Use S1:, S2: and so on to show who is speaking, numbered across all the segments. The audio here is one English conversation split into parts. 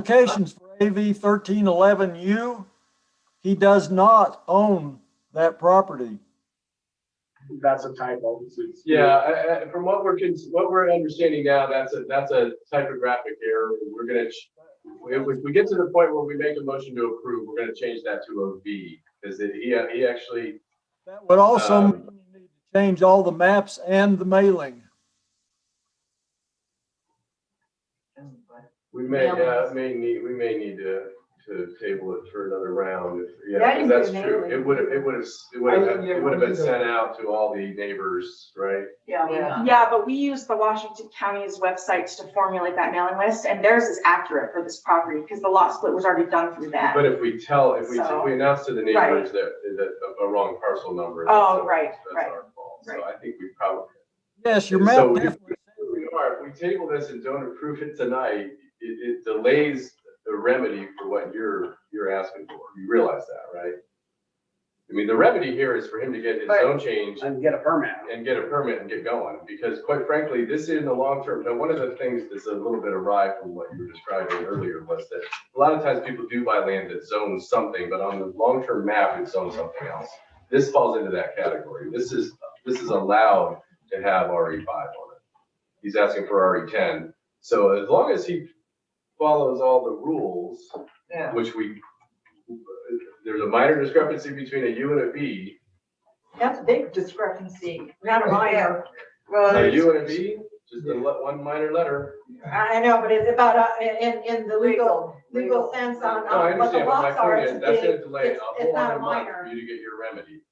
S1: applications for AV thirteen eleven U. He does not own that property.
S2: That's a typo.
S3: Yeah, I, I, from what we're, cons- what we're understanding now, that's a, that's a typographic error. We're gonna, ch- if we- if we get to the point where we make a motion to approve, we're gonna change that to a V. Because he, he actually,
S1: That would also
S3: Um,
S1: mean you need to change all the maps and the mailing.
S3: we may,
S4: Yeah.
S3: uh, may need, we may need to, to table it for another round. if-
S4: Yeah, I
S3: Yeah,
S4: can
S3: 'cause that's
S4: do it
S3: true.
S4: anyway.
S3: It would have, it would have, it would have, it would have been sent out to all the neighbors, right?
S4: Yeah, we
S5: Yeah.
S4: know.
S5: Yeah, but we use the Washington County's websites to formulate that mailing list, and theirs is accurate for this property, because the lot split was already done through that.
S3: But if we tell, if we, if we announce to the
S5: Right.
S3: neighbors that, that a- a wrong parcel number.
S5: Oh,
S3: that's-
S5: right,
S3: That's
S5: right,
S3: our fault. So
S5: right.
S3: I think we probably,
S1: Yes, your
S3: So
S1: map
S3: we-
S1: definitely
S3: We are, if we table this and don't approve it tonight, it, it delays the remedy for what you're, you're asking for. You realize that, right? I mean, the remedy here is for him to get his
S4: But-
S3: zone change
S2: And get a permit.
S3: and get a permit and get going, because quite frankly, this is in the long term. Now, one of the things that's a little bit awry from what you were describing earlier was that a lot of times people do buy land that zones something, but on the long-term map, it zones something else. This falls into that category. This is, this is allowed to have RE five on it. He's asking for RE ten. So as long as he follows all the rules,
S5: Yeah.
S3: which we, there's a minor discrepancy between a U and a V.
S4: That's a big discrepancy.
S5: Not a minor.
S3: A
S4: Well,
S3: U and a V, just a le- one minor letter.
S4: I I know, but it's about, uh, in, in the legal, legal
S5: Legal.
S4: sense on
S3: No, I
S4: on what Uh, the
S3: understand, but my
S4: lots are.
S3: point
S4: it's
S3: is, that's
S4: big.
S3: gonna delay a
S4: it's- it's
S3: whole
S4: not a
S3: other month
S4: minor.
S3: for you to get your remedy.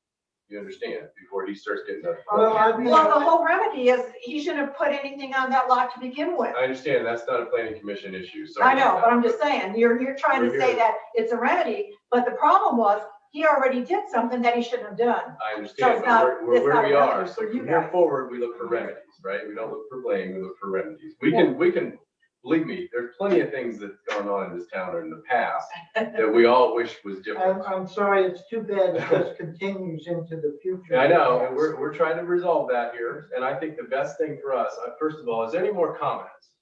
S3: You understand, before he starts getting that.
S5: Well, I-
S4: Well, the whole remedy is, he shouldn't have put anything on that lot to begin with.
S3: I understand, that's not a planning commission issue, sorry.
S4: I know,
S3: about
S4: but
S3: that.
S4: I'm just saying, you're, you're trying to
S3: We're
S4: say
S3: here.
S4: that it's a remedy, but the problem was, he already did something that he shouldn't have done.
S3: I understand,
S4: it's
S3: but
S4: not-
S3: we're- we're
S4: it's
S3: where
S4: not
S3: we
S4: a
S3: are,
S4: remedy
S3: so
S4: for you
S3: from here
S4: guys.
S3: forward, we look for remedies, right? We don't look for blame, we look for remedies. We can, we can, believe me, there's plenty of things that's gone on in this town or in the past that we all wish was
S6: I'm,
S3: different.
S6: I'm sorry, it's too bad that this continues into the future.
S3: Yeah, I know, and we're, we're trying to resolve that here, and I think the best thing for us, uh, first of all, is there any more comments?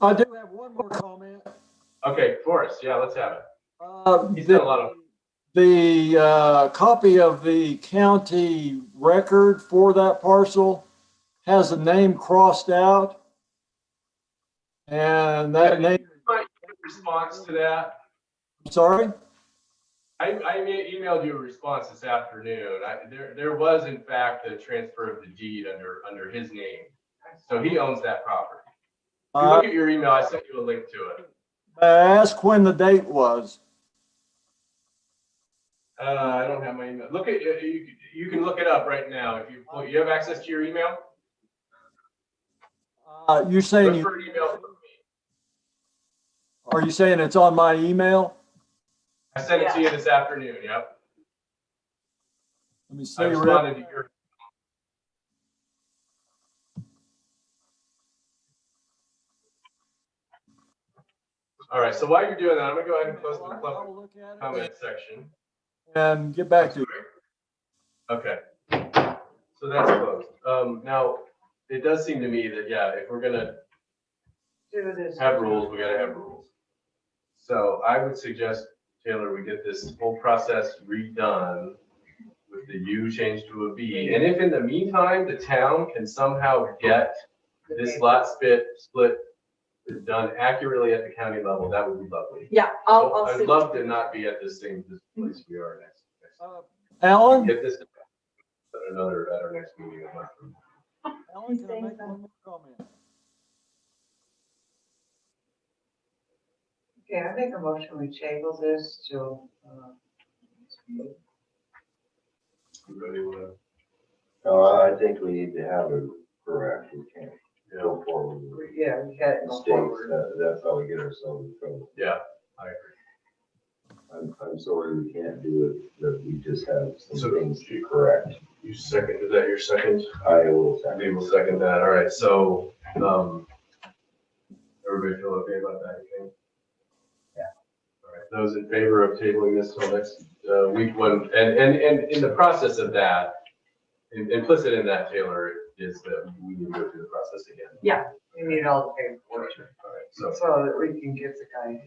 S1: I do have one more comment.
S3: Okay, Forrest, yeah, let's have it.
S1: Uh,
S3: He's done a lot of
S1: The uh, copy of the county record for that parcel has a name crossed out. And that name,
S3: response to that.
S1: I'm sorry,
S3: I, I ma- emailed you a response this afternoon. I, there, there was in fact a transfer of the deed under, under his name. So he owns that property. If you
S1: Uh,
S3: look at your email, I sent you a link to it.
S1: I asked when the date was.
S3: Uh, I don't have my email. Look at, you, you- you can look it up right now. If you, you have access to your email?
S1: Uh, You're saying, you
S3: Refer to email from me.
S1: are you saying it's on my email?
S3: I sent it to you this afternoon, yep.
S1: Let me see.
S3: I responded to your, all right, so while you're doing that, I'm gonna go ahead and close the public
S1: I'll look at it
S3: comment section.
S1: And get back to you.
S3: Okay. So that's closed. Um, now, it does seem to me that, yeah, if we're gonna
S4: Do this.
S3: have rules, we gotta have rules. So I would suggest, Taylor, we get this whole process redone with the U changed to a V. And if in the meantime, the town can somehow get this lot split, split done accurately at the county level, that would be lovely.
S4: Yeah, I'll, I'll.
S3: I'd
S4: see-
S3: love to not be at this same, this place we are next. next-
S1: Uh,
S4: Oh.
S1: Alan?
S3: Get this at another, at our next meeting. I'm not-
S1: Alan, can I make one more comment?
S5: Okay, I make a motion, we table this till, uh,
S3: Everybody wanna?
S7: No, I think we need to have it correct, we can't go forward with
S5: yeah, we got
S7: mistakes, That- that's how we get ourselves in trouble.
S3: Yeah, I agree.
S7: I'm, I'm sorry we can't do it, that we just have
S3: So-
S7: some things to correct.
S3: You second, is that your second?
S7: I will
S3: We
S7: second.
S3: will second that, all right, so, um, everybody feel okay about that, you think? Yeah. All right, those in favor of tabling this till next, uh, week one, and, and, and in the process of that, im- implicit in that, Taylor, is that we need to go through the process again.
S6: You need all the paperwork,
S3: All right, so.
S6: so that we can get the guy